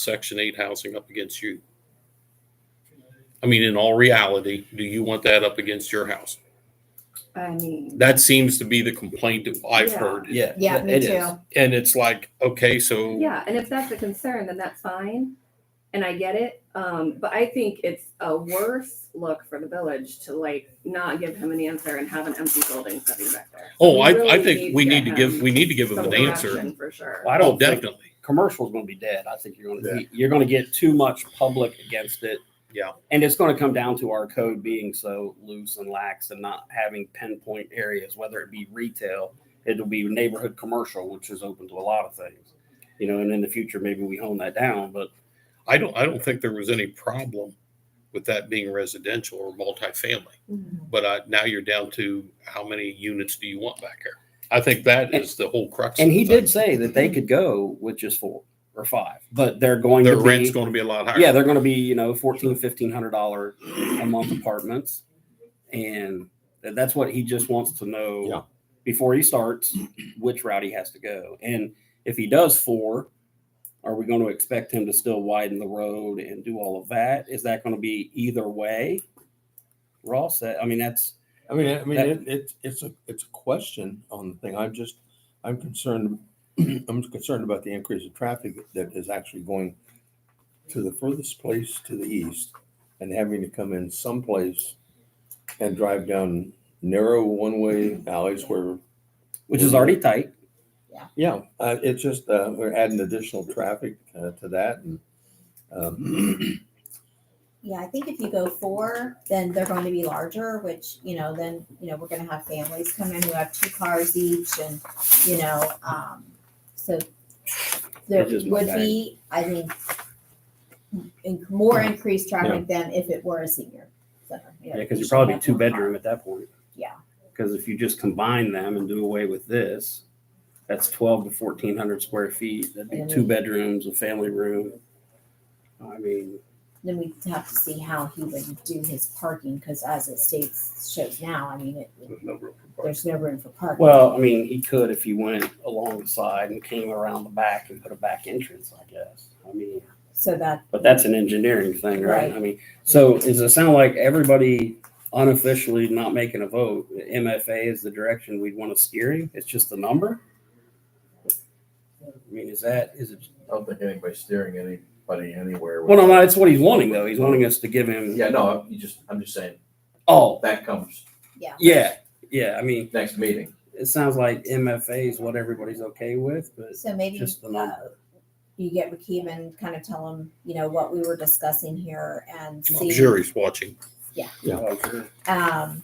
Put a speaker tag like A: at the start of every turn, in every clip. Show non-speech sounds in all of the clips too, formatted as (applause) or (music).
A: Section 8 housing up against you? I mean, in all reality, do you want that up against your house?
B: I mean,
A: That seems to be the complaint that I've
B: Yeah.
A: heard.
C: Yeah.
B: yeah,
C: th-
B: me
C: it
B: too.
C: is.
A: And it's like, okay, so
B: Yeah, and if that's a concern, then that's fine, and I get it. Um, but I think it's a worse look for the village to like not give him an answer and have an empty building sitting back there.
A: Oh, I,
B: really
A: I think we need to
B: him
A: give, we need to give them
B: some
A: an answer.
B: direction For sure.
C: Well, I
A: Oh,
C: don't think
A: definitely.
C: commercial's going to be dead. I think you're going to you're going to get too much public against it.
A: Yeah.
C: And it's going to come down to our code being so loose and lax and not having pinpoint areas, whether it be retail, it'll be neighborhood commercial, which is open to a lot of things. You know, and in the future, maybe we hone that down, but
A: I don't, I don't think there was any problem with that being residential or multifamily.
B: Mhm.
A: But I, now you're down to how many units do you want back here? I think that is the whole crux.
C: And he
A: of the thing.
C: did say that they could go with just four or five, but they're going
A: Their
C: to be,
A: rent's going to be a lot higher.
C: yeah, they're going to be you know fourteen, fifteen hundred dollar a month apartments, and tha- that's what he just wants to know
A: Yeah.
C: before he starts which route he has to go, and if he does four. Are we going to expect him to still widen the road and do all of that? Is that going to be either way? Ross, that- I mean, that's
D: I mean, I mean,
C: That-
D: it, it, it's a, it's a question on the thing. I'm just, I'm concerned, (clears throat) I'm concerned about the increase of traffic that is actually going to the furthest place to the east and having to come in someplace and drive down narrow one-way alleys where,
C: which is already tight.
D: yeah, uh, it's just, uh, we're adding additional traffic, uh, to that and, um, (clears throat)
E: Yeah, I think if you go four, then they're going to be larger, which, you know, then, you know, we're gonna have families come in who have two cars each and, you know, um, so there
C: Which is my
E: would
C: bag.
E: be, I think, in- more increased traffic than if it were a senior center. you know,
C: Yeah, because
E: you
C: you're
E: should
C: probably
E: have
C: two
E: one car.
C: bedroom at that point.
E: Yeah.
C: Because if you just combine them and do away with this, that's twelve to fourteen hundred square feet. That'd be
E: And-
C: two bedrooms, a family room. I mean,
E: Then we'd have to see how he would do his parking, because as it states, shows now, I mean, it, there's no room for parking.
C: well, I mean, he could if he went along the side and came around the back and put a back entrance, I guess. I mean,
E: So that,
C: but that's an engineering thing, right?
E: Right.
C: I mean, so does it sound like everybody unofficially not making a vote, MFA is the direction we'd want to steer him? It's just the number? I mean, is that, is it
F: I don't think anybody's steering anybody anywhere. with
C: Well, no, no,
F: that.
C: that's what he's wanting though. He's wanting us to give him.
F: Yeah, no, I'm- you just, I'm just saying,
C: Oh,
F: that comes
C: yeah, yeah. I mean,
F: next meeting.
C: it sounds like MFA is what everybody's okay with, but
E: so maybe.
C: just the
E: uh,
C: number.
E: you get with Keven, kind of tell him, you know, what we were discussing here and
A: I'm
E: see,
A: Oh, sure he's watching.
D: yeah.
C: Oh, sure.
E: um,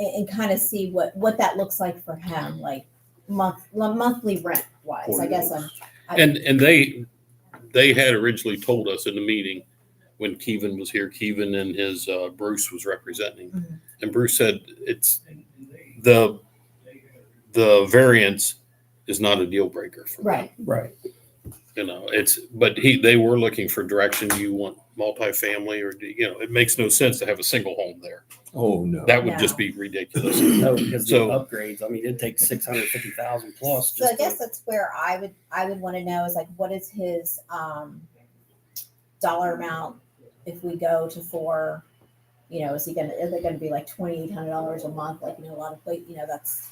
E: and, and kind of see what, what that looks like for him, like month, lo- monthly rent wise, I guess um, I'm. I-
A: And, and they, they had originally told us in the meeting when Keevan was here, Keevan and his, uh, Bruce was representing.
E: Mhm.
A: And Bruce said, it's the, the variance is not a deal breaker for them.
E: Right,
C: Right.
A: You know, it's, but he, they were looking for direction. Do you want multifamily or, do you know, it makes no sense to have a single home there.
D: oh, no.
A: That would just
E: No.
A: be ridiculous.
C: No, because the
A: So-
C: upgrades. I mean, it takes six hundred fifty thousand plus.
E: so I
C: just to-
E: guess that's where I would, I would want to know is like, what is his, um, dollar amount if we go to four? You know, is he gonna, is it gonna be like twenty-eight hundred dollars a month, like, you know, a lot of, like, you know, that's,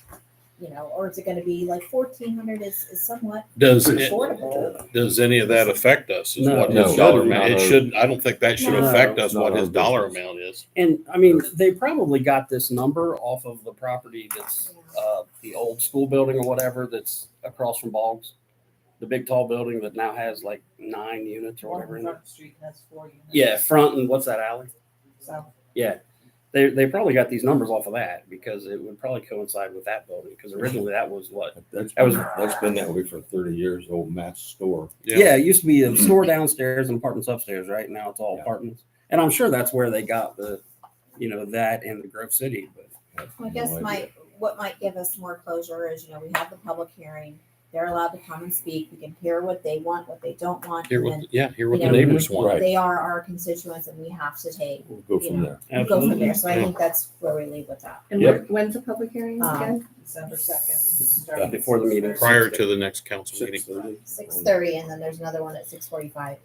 E: you know, or is it gonna be like fourteen hundred is, is somewhat
A: Does, it-
E: affordable?
A: does any of that affect us? Is
C: No.
A: what
D: No.
A: his dollar
D: No,
A: amount, it
D: no.
A: should, I don't think that should
E: No.
A: affect us
D: No,
A: what
D: no,
A: his dollar
D: business.
A: amount is.
C: And I mean, they probably got this number off of the property that's uh, the old school building or whatever that's across from Boggs, the big tall building that now has like nine units or whatever. in it.
G: Street has four units.
C: Yeah, front and what's that alley?
G: So.
C: Yeah, they they probably got these numbers off of that because it would probably coincide with that building because originally that was what.
D: That's,
C: That was-
D: that's been that way for thirty years, old Matt's store.
A: Yeah.
C: it used to be a store downstairs and apartments upstairs. Right now it's all
D: Yeah.
C: apartments, and I'm sure that's where they got the, you know, that and the Grove City. But
D: have
E: Well, I
D: no
E: guess
D: idea.
E: my, what might give us more closure is, you know, we have the public hearing. They're allowed to come and speak. We can hear what they want, what they don't want.
A: Hear
E: and
A: what,
E: then
A: yeah, hear what the
E: you know,
A: neighbors want.
D: Right.
E: They are our constituents and we have to take,
D: We'll go from there.
E: go from
C: Absolutely.
E: there. So I think that's where we leave with that.
B: And
D: Yep.
B: wh- when's the public hearing
E: Um,
B: again?
G: December second.
C: Before the meeting.
A: Prior to the next council meeting.
D: Six thirty.
E: Six thirty and then there's another one at six forty-five.